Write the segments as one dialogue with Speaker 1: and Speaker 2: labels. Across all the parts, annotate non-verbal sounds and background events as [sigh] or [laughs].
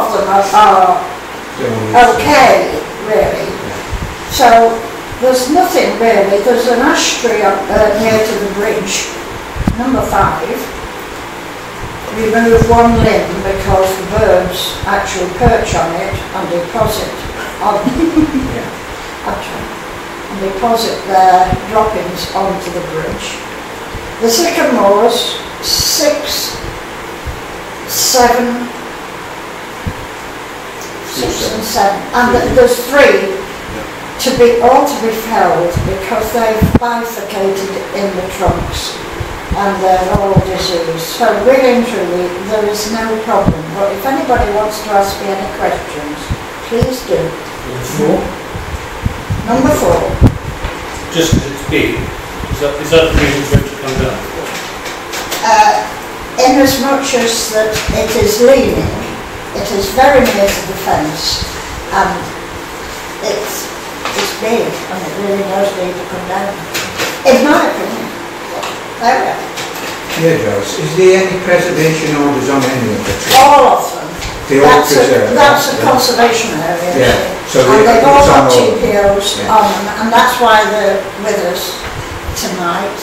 Speaker 1: uh,
Speaker 2: Yes.
Speaker 1: okay, really. So there's nothing really, there's an ash tree up uh, near to the bridge, number five. Remove one limb because the birds actually perch on it and deposit on, actually, and deposit their droppings onto the bridge. The sycamores, six, seven, six and seven, and th- there's three to be, all to be felled because they've bifurcated in the trunks and they're all diseased. So really and truly, there is no problem. But if anybody wants to ask me any questions, please do. Number four,
Speaker 3: Just as it's big, is that, is that the reason for it to come down?
Speaker 1: uh, inasmuch as that it is leaning, it is very near to the fence and it's, it's big and it really does need to come down. In my opinion, there we are.
Speaker 2: Yeah, Joyce, is there any preservation orders on any of it?
Speaker 1: All of them.
Speaker 2: They all
Speaker 1: Oh, That's a-
Speaker 2: preserve.
Speaker 1: That's a
Speaker 2: yeah.
Speaker 1: conservation area.
Speaker 2: Yeah, so
Speaker 1: And
Speaker 2: they-
Speaker 1: they've all
Speaker 2: it's on
Speaker 1: got
Speaker 2: all of them.
Speaker 1: TPOs
Speaker 2: Yeah.
Speaker 1: on them, and that's why they're with us tonight.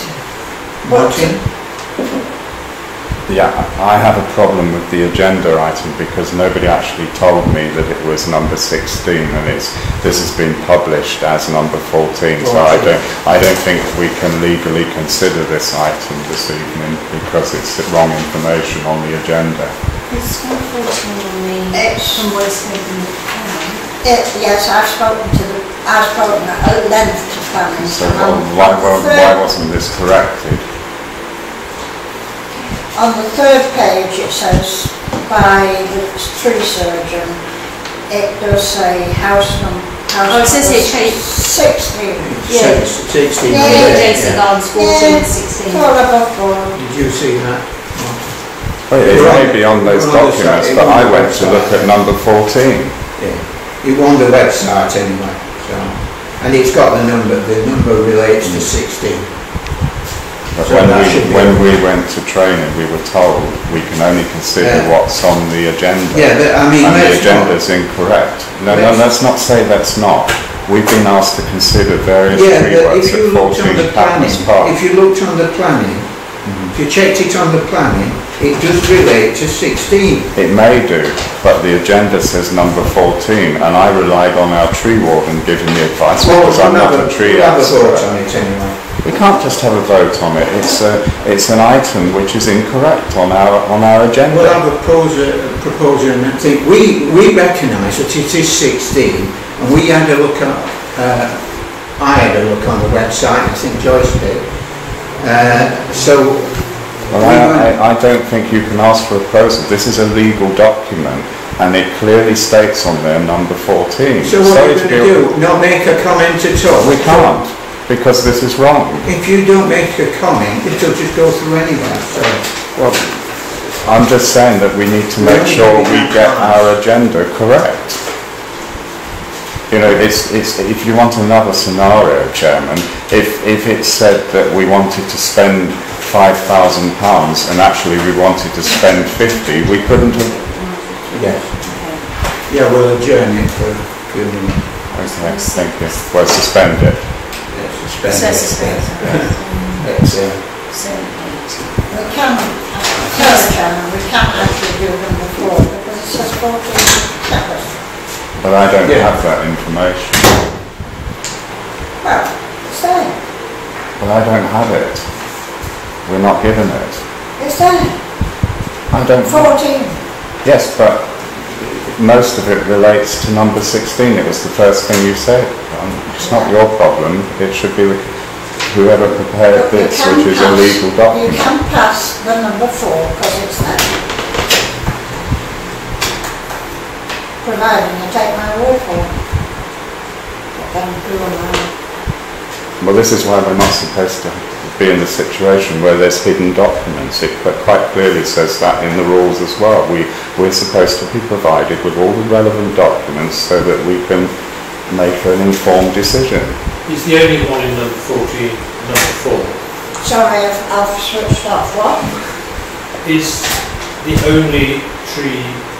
Speaker 1: But
Speaker 2: Uh, Martin?
Speaker 4: Yeah, I have a problem with the agenda item because nobody actually told me that it was number 16 and it's, this has been published as number 14, so I don't, I don't think we can legally consider this item this evening because it's the wrong information on the agenda.
Speaker 5: It's unfortunately
Speaker 1: It's-
Speaker 5: from what it's taken from.
Speaker 1: it, yes, I've spoken to, the- I've spoken at length to planning.
Speaker 4: So
Speaker 1: and on-
Speaker 4: why,
Speaker 1: on the
Speaker 4: why-
Speaker 1: third-
Speaker 4: why wasn't this corrected?
Speaker 1: On the third page, it says by the tree surgeon, it does say house number.
Speaker 5: Oh, it says here, tree-
Speaker 1: Sixteen.
Speaker 5: Yeah.
Speaker 2: Six- Sixteen.
Speaker 1: Yeah,
Speaker 5: Three
Speaker 2: yeah,
Speaker 5: days
Speaker 2: yeah.
Speaker 5: ago, it's
Speaker 1: Yeah,
Speaker 5: fourteen, sixteen.
Speaker 1: Four above board.
Speaker 2: Did you see that?
Speaker 4: Well, It may be on those
Speaker 2: Well, on the side-
Speaker 4: documents, but I went to look at number 14.
Speaker 2: Yeah. It won the website anyway, so, and it's got the number, the number relates to sixteen.
Speaker 4: But
Speaker 2: So
Speaker 4: when
Speaker 2: that
Speaker 4: we,
Speaker 2: should be-
Speaker 4: when we went to training, we were told we can only consider
Speaker 2: Yeah.
Speaker 4: what's on the agenda.
Speaker 2: Yeah, but I mean,
Speaker 4: And the
Speaker 2: let's not,
Speaker 4: agenda's incorrect. No, no,
Speaker 2: Let's-
Speaker 4: let's not say that's not. We've been asked to consider various
Speaker 2: yeah, but
Speaker 4: reworks
Speaker 2: if you
Speaker 4: at
Speaker 2: looked on the
Speaker 4: fourteen
Speaker 2: planning,
Speaker 4: Patmos Park.
Speaker 2: if you looked on the planning, if you checked it on the planning, it does relate to sixteen.
Speaker 4: It may do, but the agenda says number fourteen, and I relied on our tree warden giving me advice because I'm not a tree
Speaker 2: We'll have a vote
Speaker 4: expert.
Speaker 2: on it anyway.
Speaker 4: We can't just have a vote on it. It's a, it's an item which is incorrect on our, on our agenda.
Speaker 2: Well, I propose a a proposal, and I think we, we recognise that it is 16, and we had a look at, uh, I had a look on the website, I think Joyce did. Uh, so,
Speaker 4: Well, I, I, I don't think you can ask for a proposal. This is a legal document, and it clearly states on there number 14.
Speaker 2: so what are
Speaker 4: Sorry
Speaker 2: you
Speaker 4: to
Speaker 2: going
Speaker 4: be-
Speaker 2: to do? Not make a comment at all?
Speaker 4: We can't, because this is wrong.
Speaker 2: If you don't make a comment, it'll just go through anyway, so.
Speaker 4: Well, I'm just saying that we need to make sure we get our agenda correct. You know, it's, it's, if you want another scenario, Chairman, if, if it said that we wanted to spend five thousand pounds and actually we wanted to spend fifty, we couldn't have,
Speaker 2: Yes. Yeah, we'll adjourn it for a few minutes.
Speaker 4: okay, thank you, well, suspend it.
Speaker 2: Let's
Speaker 5: So
Speaker 2: suspend
Speaker 5: it's
Speaker 2: it. [laughs] Let's, uh,
Speaker 1: We can, Mr. Chairman, we can't actually do them before, because it says fourteen separate.
Speaker 4: But I don't
Speaker 2: Yeah.
Speaker 4: have that information.
Speaker 1: Well, it's there,
Speaker 4: Well, I don't have it. We're not given it.
Speaker 1: it's there,
Speaker 4: I don't.
Speaker 1: fourteen.
Speaker 4: Yes, but most of it relates to number 16. It was the first thing you said. Um, It's not your problem. It should be the- whoever prepared
Speaker 1: But you
Speaker 4: this,
Speaker 1: can
Speaker 4: which is a
Speaker 1: pass-
Speaker 4: legal
Speaker 1: You
Speaker 4: document.
Speaker 1: can pass the number four, because it's there. Providing you take my word for it. But then who am I?
Speaker 4: Well, this is why we're not supposed to be in the situation where there's hidden documents. It qu- quite clearly says that in the rules as well. We, we're supposed to be provided with all the relevant documents so that we can make an informed decision.
Speaker 3: It's the only one in number fourteen, number four.
Speaker 1: Sorry, I've, I've switched off, what?
Speaker 3: It's the only tree